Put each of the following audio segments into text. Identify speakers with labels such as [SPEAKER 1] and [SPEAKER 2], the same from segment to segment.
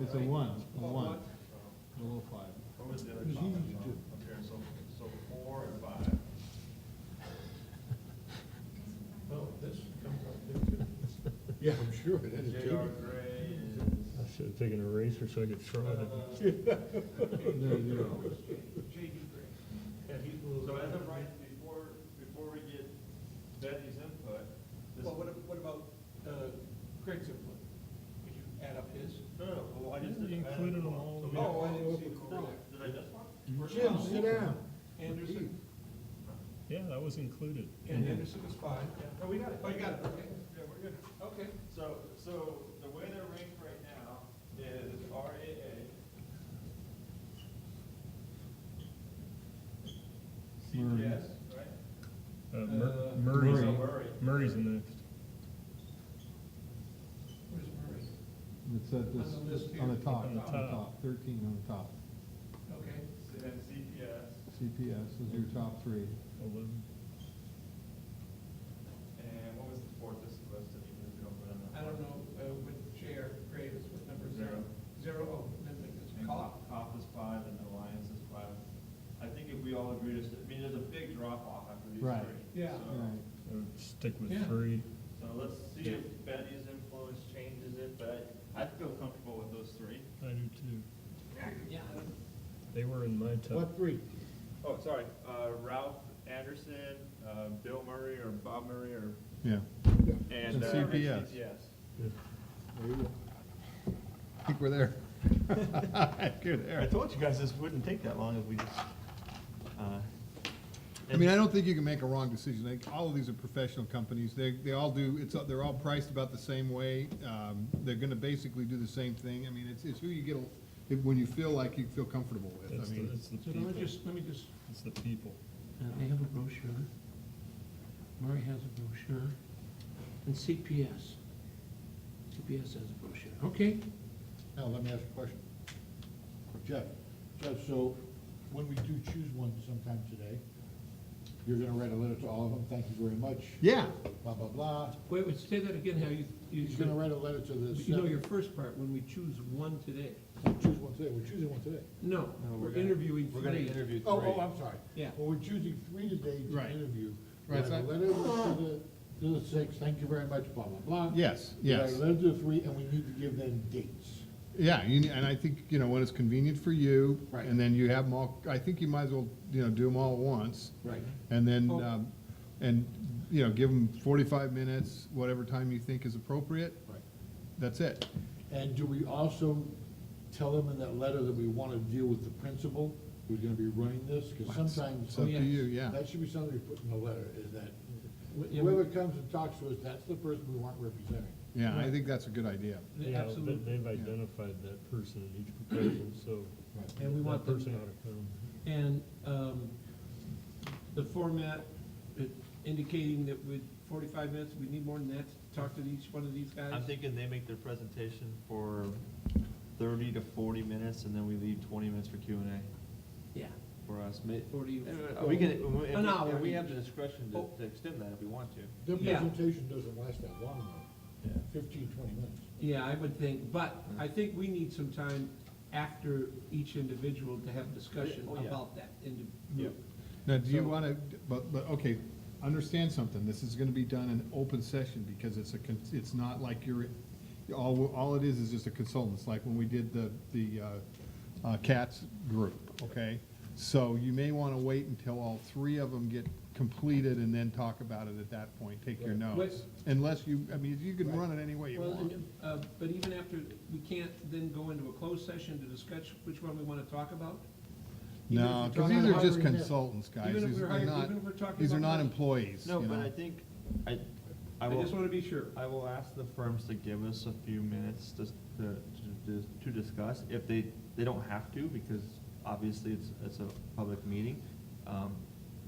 [SPEAKER 1] It's a one, a one, below five.
[SPEAKER 2] What was the other
[SPEAKER 1] It's
[SPEAKER 2] comment
[SPEAKER 1] easy to
[SPEAKER 2] from
[SPEAKER 1] do.
[SPEAKER 2] up here? So, so four and five.
[SPEAKER 3] Oh, this comes up there too.
[SPEAKER 4] Yeah, I'm sure, that is
[SPEAKER 2] J.R.
[SPEAKER 4] too.
[SPEAKER 2] Gray
[SPEAKER 5] I should have taken a eraser so I could throw it.
[SPEAKER 3] Uh,
[SPEAKER 1] There you go.
[SPEAKER 3] J.D. Gray. Yeah, he's a
[SPEAKER 2] is,
[SPEAKER 3] little.
[SPEAKER 2] so as of right, before, before we get Betty's input, this,
[SPEAKER 3] Well, what, ab- what about, uh, Craig's input? Could you add up his?
[SPEAKER 2] no, no, well, I just
[SPEAKER 5] You
[SPEAKER 2] didn't.
[SPEAKER 5] included them all.
[SPEAKER 2] So we-
[SPEAKER 3] Oh, I didn't see it.
[SPEAKER 2] Did I miss one?
[SPEAKER 4] Jim, sit down.
[SPEAKER 3] Anderson,
[SPEAKER 5] Yeah, that was included.
[SPEAKER 3] and Anderson is fine.
[SPEAKER 2] Yeah, no, we got it.
[SPEAKER 3] Oh, you got it, okay.
[SPEAKER 2] Yeah, we're good.
[SPEAKER 3] Okay.
[SPEAKER 2] So, so the way they're ranked right now is RAA. CPS, right?
[SPEAKER 5] Uh, Mur-
[SPEAKER 3] Uh,
[SPEAKER 5] Murray's,
[SPEAKER 2] So Murray.
[SPEAKER 5] Murray's the next.
[SPEAKER 3] Where's Murray?
[SPEAKER 1] It's at this,
[SPEAKER 3] On the list
[SPEAKER 1] on the
[SPEAKER 3] here.
[SPEAKER 1] top,
[SPEAKER 5] On
[SPEAKER 1] on
[SPEAKER 5] the
[SPEAKER 1] the
[SPEAKER 5] top.
[SPEAKER 1] top, thirteen on the top.
[SPEAKER 3] Okay.
[SPEAKER 2] Then CPS
[SPEAKER 1] CPS is your top three.
[SPEAKER 5] Eleven.
[SPEAKER 2] and what was the fourth that's listed even if we don't put it on?
[SPEAKER 3] I don't know, uh, what J.R. Gray is, what number is
[SPEAKER 2] Zero.
[SPEAKER 3] that? Zero, oh, then like this.
[SPEAKER 2] And
[SPEAKER 3] Cop.
[SPEAKER 2] COP, COP is five and Alliance is five. I think if we all agree to, st- I mean, there's a big drop off after these
[SPEAKER 1] Right.
[SPEAKER 2] three.
[SPEAKER 3] Yeah.
[SPEAKER 2] So-
[SPEAKER 1] All right.
[SPEAKER 5] I would stick with
[SPEAKER 3] Yeah.
[SPEAKER 5] three.
[SPEAKER 2] So let's see if Betty's influence changes it, but I, I feel comfortable with those three.
[SPEAKER 5] I do too.
[SPEAKER 3] Yeah.
[SPEAKER 5] They were in my top.
[SPEAKER 4] What three?
[SPEAKER 2] Oh, sorry, uh, Ralph Anderson, uh, Bill Murray or Bob Murray or,
[SPEAKER 1] Yeah.
[SPEAKER 2] and.
[SPEAKER 1] And
[SPEAKER 2] uh,
[SPEAKER 1] CPS.
[SPEAKER 2] CPS.
[SPEAKER 4] There you go. I think we're there. Good,
[SPEAKER 2] I
[SPEAKER 4] there.
[SPEAKER 2] told you guys this wouldn't take that long if we just, uh.
[SPEAKER 4] I mean, I don't think you can make a wrong decision. Like, all of these are professional companies. They, they all do, it's, they're all priced about the same way. Um, they're gonna basically do the same thing. I mean, it's, it's who you get, a- when you feel like you feel comfortable with.
[SPEAKER 5] It's
[SPEAKER 4] I
[SPEAKER 5] the,
[SPEAKER 4] mean,
[SPEAKER 5] it's the
[SPEAKER 6] So let me
[SPEAKER 5] people.
[SPEAKER 6] just, let me just,
[SPEAKER 5] It's the people.
[SPEAKER 6] uh, they have a brochure, Murray has a brochure, and CPS. CPS has a brochure, okay?
[SPEAKER 4] now, let me ask a question.
[SPEAKER 7] Jeff, Jeff, so when we do choose one sometime today, you're gonna write a letter to all of them, thank you very much,
[SPEAKER 4] Yeah,
[SPEAKER 7] blah, blah, blah.
[SPEAKER 6] Wait, wait, say that again, how you, you,
[SPEAKER 7] He's gonna write a letter to the.
[SPEAKER 6] you know your
[SPEAKER 7] seven-
[SPEAKER 6] first part, when we choose one today.
[SPEAKER 7] Choose one today, we're choosing one today.
[SPEAKER 6] No, we're interviewing three.
[SPEAKER 2] interview
[SPEAKER 7] Oh, oh, I'm sorry.
[SPEAKER 6] Yeah.
[SPEAKER 7] Well, we're choosing three today to
[SPEAKER 4] Right.
[SPEAKER 7] interview.
[SPEAKER 4] Right,
[SPEAKER 7] Write a
[SPEAKER 4] so I-
[SPEAKER 7] letter to the, to the six, thank you very much, blah, blah, blah.
[SPEAKER 4] yes,
[SPEAKER 7] We
[SPEAKER 4] yes.
[SPEAKER 7] Write a letter to the three, and we need to give them dates.
[SPEAKER 4] Yeah, you, ne- and I think, you know, when it's convenient for you.
[SPEAKER 7] Right.
[SPEAKER 4] And then you have them all, I think you might as well, you know, do them all at once.
[SPEAKER 7] Right.
[SPEAKER 4] And then, um, and, you know, give them forty-five minutes, whatever time you think is appropriate.
[SPEAKER 7] Right.
[SPEAKER 4] That's it.
[SPEAKER 7] And do we also tell them in that letter that we wanna deal with the principal who's gonna be running this? Cause sometimes.
[SPEAKER 4] It's up to you, yeah.
[SPEAKER 7] That should be something we put in the letter, is that
[SPEAKER 6] Wh- yeah,
[SPEAKER 7] whoever comes and talks to us, that's the person we want representing.
[SPEAKER 4] Yeah, I think that's a good idea.
[SPEAKER 6] the
[SPEAKER 5] Yeah, but
[SPEAKER 6] Absolute,
[SPEAKER 5] They've identified that person in each proposal, so
[SPEAKER 6] and we
[SPEAKER 5] that
[SPEAKER 6] want
[SPEAKER 5] person
[SPEAKER 6] them,
[SPEAKER 5] ought to come.
[SPEAKER 6] and, um, the format uh, indicating that with forty-five minutes, we need more than that to talk to each one of these guys.
[SPEAKER 2] I'm thinking they make their presentation for thirty to forty minutes, and then we leave twenty minutes for Q and A
[SPEAKER 6] Yeah,
[SPEAKER 2] for us. Ma-
[SPEAKER 6] forty.
[SPEAKER 2] Are we gonna, and we-
[SPEAKER 6] An hour.
[SPEAKER 2] and we have the discretion to,
[SPEAKER 6] Oh.
[SPEAKER 2] to extend that if we want to.
[SPEAKER 7] Their
[SPEAKER 6] Yeah.
[SPEAKER 7] presentation doesn't last that long, though,
[SPEAKER 2] Yeah.
[SPEAKER 7] fifteen, twenty minutes.
[SPEAKER 6] Yeah, I would think, but I think we need some time after each individual to have discussion
[SPEAKER 2] Oh, yeah.
[SPEAKER 6] about that indi-
[SPEAKER 2] Yeah.
[SPEAKER 4] Now, do you wanna, but, but, okay, understand something, this is gonna be done in open session, because it's a, con- it's not like you're, all, all it is is just a consultant, it's like when we did the, the, uh, uh, CATS group, okay? So you may wanna wait until all three of them get completed and then talk about it at that point, take your
[SPEAKER 6] Right.
[SPEAKER 4] notes. Unless you, I mean, you can run it any way you
[SPEAKER 6] Well,
[SPEAKER 4] want.
[SPEAKER 6] uh, but even after, we can't then go into a closed session to discuss which one we want to talk about? even if
[SPEAKER 4] No,
[SPEAKER 6] we're
[SPEAKER 4] cause
[SPEAKER 6] talking
[SPEAKER 4] these are
[SPEAKER 6] about
[SPEAKER 4] just
[SPEAKER 7] hiring them.
[SPEAKER 4] consultants, guys,
[SPEAKER 6] Even if
[SPEAKER 4] these
[SPEAKER 6] we're
[SPEAKER 4] are
[SPEAKER 6] hiring-
[SPEAKER 4] not,
[SPEAKER 6] even if we're talking
[SPEAKER 4] these are
[SPEAKER 6] about
[SPEAKER 4] not
[SPEAKER 6] hiring-
[SPEAKER 4] employees,
[SPEAKER 2] No,
[SPEAKER 4] you
[SPEAKER 2] but
[SPEAKER 4] know?
[SPEAKER 2] I think, I, I
[SPEAKER 6] I just
[SPEAKER 2] will,
[SPEAKER 6] want to be sure.
[SPEAKER 2] I will ask the firms to give us a few minutes to, to, to- to discuss. If they, they don't have to, because obviously it's, it's a public meeting. Um,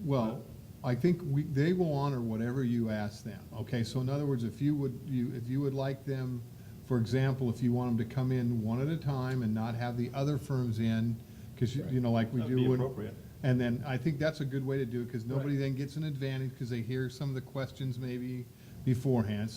[SPEAKER 4] Well, I think we, they will honor whatever you ask them, okay? So in other words, if you would, you, if you would like them, for example, if you want them to come in one at a time and not have the other firms in, because, you know, like we
[SPEAKER 2] That'd
[SPEAKER 4] do.
[SPEAKER 2] be
[SPEAKER 4] when-
[SPEAKER 2] appropriate.
[SPEAKER 4] And then I think that's a good way to do it, because nobody then gets an advantage, because they hear some of the questions maybe beforehand.